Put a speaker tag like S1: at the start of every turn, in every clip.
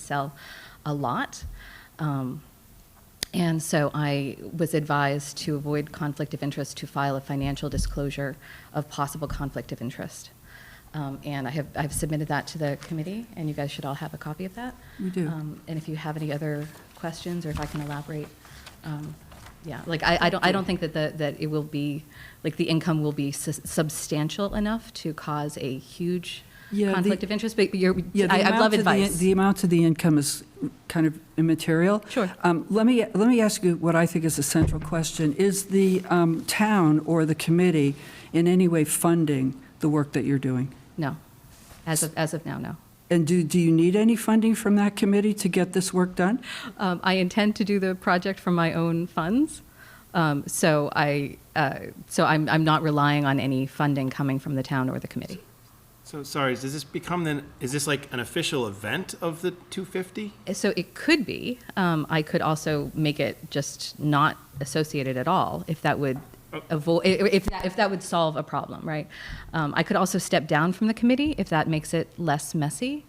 S1: sell a lot. Um, and so I was advised to avoid conflict of interest to file a financial disclosure of possible conflict of interest. Um, and I have, I've submitted that to the committee, and you guys should all have a copy of that.
S2: We do.
S1: Um, and if you have any other questions, or if I can elaborate, um, yeah, like I, I don't, I don't think that the, that it will be, like the income will be sus- substantial enough to cause a huge
S2: Yeah, the-
S1: conflict of interest. But you're,
S2: Yeah, the
S1: I, I
S2: amount
S1: love
S2: of the-
S1: advice.
S2: The amount of the income is kind of immaterial.
S1: Sure.
S2: Um, Let me, let me ask you what I think is a central question. Is the um, town or the committee in any way funding the work that you're doing?
S1: no, as of as of now, no.
S2: And do, do you need any funding from that committee to get this work done?
S1: Um, I intend to do the project from my own funds. Um, so I, uh, so I'm, I'm not relying on any funding coming from the town or the committee.
S3: So, sorry, does this become then, is this like an official event of the 250?
S1: So it could be. Um, I could also make it just not associated at all if that would avoid, if that, if that would solve a problem, right? Um, I could also step down from the committee if that makes it less messy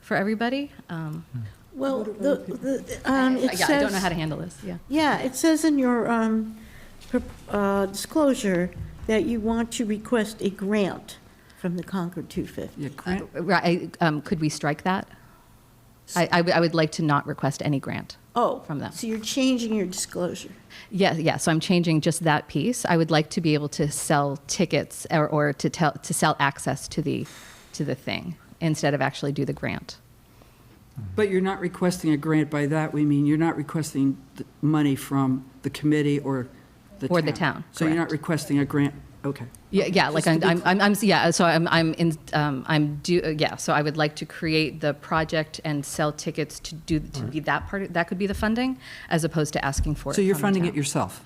S1: for everybody. Um,
S4: Well, the, the, um,
S1: yeah,
S4: it
S1: I don't know how to
S4: says,
S1: handle this. Yeah.
S4: yeah, it says in your, um, pro- uh, disclosure that you want to request a grant from the Concord 250.
S2: Yeah, grant-
S1: Right, I- um, could we strike that? I, I would- I would like to not request any grant.
S4: Oh.
S1: From them.
S4: So you're changing your disclosure.
S1: Yeah, yeah, so I'm changing just that piece. I would like to be able to sell tickets or, or to tell, to sell access to the, to the thing instead of actually do the grant.
S2: But you're not requesting a grant, by that we mean you're not requesting the money from the committee or the town.
S1: Or the town,
S2: So you're not
S1: correct.
S2: requesting a grant, okay.
S1: Yeah, yeah, like
S2: Just to
S1: I'm,
S2: be
S1: I'm, I'm, I'm- yeah, so I'm, I'm in, um, I'm do, uh, yeah, so I would like to create the project and sell tickets to do, to be that part, of- that could be the funding, as opposed to asking for it
S2: So you're
S1: from the
S2: funding
S1: town.
S2: it yourself?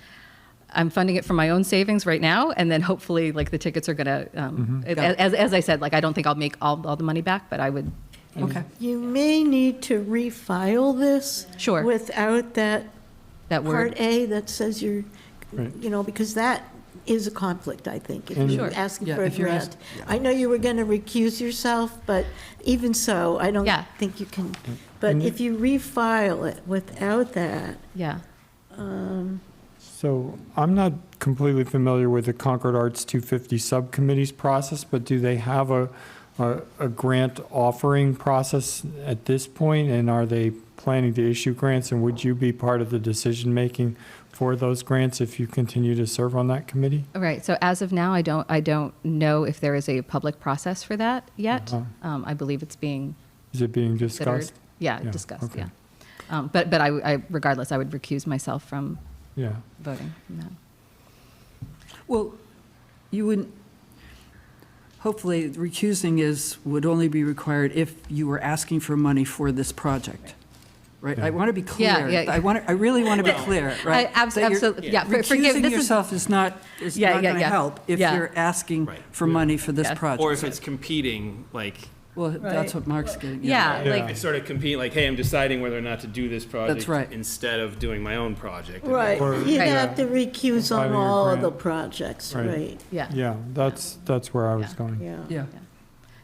S1: I'm funding it from my own savings right now, and then hopefully, like the tickets are gonna. Um,
S2: Got
S1: as,
S2: it.
S1: as, as I said, like I don't think I'll make all, all the money back, but I would.
S2: Okay.
S4: You may need to refile this.
S1: Sure.
S4: Without that
S1: That
S4: Part
S1: word.
S4: A that says you're,
S5: Right.
S4: you know, because that is a conflict, I think, if
S5: And-
S4: you're
S1: Sure.
S4: asking
S2: Yeah,
S4: for a
S2: if you're ask-
S4: grant. I know you were going to recuse yourself, but even so, I don't
S1: Yeah.
S4: think you can. But if you refile it without that, um,
S1: Yeah.
S5: So I'm not completely familiar with the Concord Arts 250 Subcommittee's process, but do they have a, a, a grant offering process at this point? And are they planning to issue grants? And would you be part of the decision-making for those grants if you continue to serve on that committee?
S1: All right. So as of now, I don't. I don't know if there is a public process for that yet.
S5: Uh-huh.
S1: Um, I believe it's being
S5: Is it being
S1: considered.
S5: discussed?
S1: Yeah,
S5: Yeah,
S1: discussed.
S5: okay.
S1: Yeah. Um, but but I, I regardless, I would recuse myself from
S5: Yeah.
S1: voting. From that.
S2: Well, you wouldn't, hopefully recusing is, would only be required if you were asking for money for this project, right? I want to be
S1: Yeah,
S2: clear.
S1: yeah.
S2: I want, I really want to be clear, right?
S1: I- abs-
S2: That you're-
S1: absolutely, yeah, for- forgive-
S2: Recusing
S1: this is-
S2: yourself is not, is
S1: Yeah,
S2: not
S1: yeah,
S2: going to
S1: yeah.
S2: help if
S1: Yeah.
S2: you're asking
S3: Right.
S2: for money for this
S1: Yeah.
S3: Or
S2: project.
S3: if it's competing, like,
S2: Well, that's what Mark's getting at.
S1: Yeah,
S5: Yeah.
S1: Like
S3: it's sort of competing, like, hey, I'm deciding whether or not to do this project.
S2: right.
S3: Instead of doing my own project.
S4: right,
S5: Or-
S4: you'd
S1: Right.
S4: have to recuse on
S5: Filing a
S4: all of
S5: grant.
S4: the projects,
S5: Right. Mm.
S4: right?
S1: yeah.
S5: Yeah, that's, that's where I was
S1: Yeah.
S5: going.
S4: Yeah.
S2: Yeah.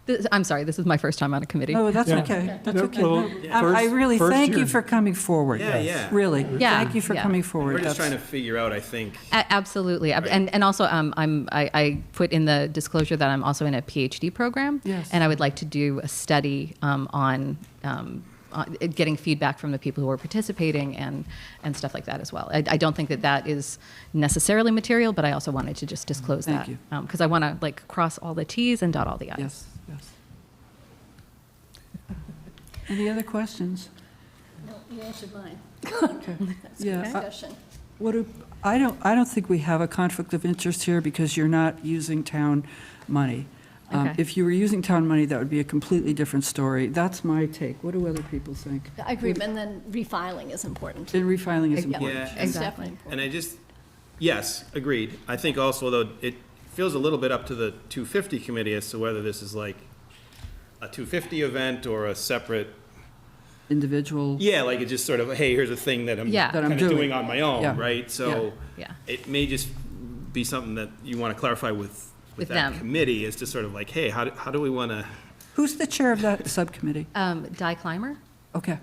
S1: This, I'm sorry. This is my first time on a committee.
S2: No, that's
S5: Yeah.
S2: okay, that's
S5: No,
S2: okay.
S5: well,
S2: No, I I
S5: first-
S2: really
S5: first
S2: thank you
S5: you're-
S2: for coming forward.
S3: Yeah, yeah.
S2: Really,
S1: Yeah,
S2: thank you for
S1: yeah.
S2: coming forward.
S3: We're just
S2: That's-
S3: trying to figure out, I think,
S1: A- Absolutely, Ab- and and also um, I'm I, I put in the disclosure that I'm also in a PhD program,
S2: Yes.
S1: and I would like to do a study um, on. Um, on it- getting feedback from the people who are participating and and stuff like that as well. I, I don't think that that is necessarily material, but I also wanted to just disclose
S2: Thank
S1: that
S2: you.
S1: because I want to like cross all the T's and dot all the I's.
S2: Yes, yes. Any other questions?
S6: You answered mine.
S2: Okay.
S6: That's
S2: Yeah. uh,
S6: good discussion.
S2: What, do- I don't, I don't think we have a conflict of interest here because you're not using town money. Um,
S1: Okay.
S2: If you were using town money, that would be a completely different story. That's my take. What do other people think?
S6: I agree, and then refiling is important.
S2: And refiling is
S1: Yeah.
S2: important.
S3: Yeah.
S6: It's
S1: Exactly.
S6: definitely important.
S3: and I just, yes, agreed. I think also, though, it feels a little bit up to the 250 committee as to whether this is like a 250 event or a separate,
S2: Individual,
S3: yeah, like it just sort of, hey, here's a thing that I'm
S1: Yeah.
S2: That I'm
S3: kind of
S2: doing.
S3: doing on my own,
S2: Yeah.
S3: right? So
S1: Yeah.
S3: it may just be something that you want to clarify with,
S1: With
S3: with that
S1: them.
S3: committee is to sort of like, hey, how, do- how do we want to?
S2: who's the chair of that subcommittee?
S1: Um, Di Clymer.
S2: Okay.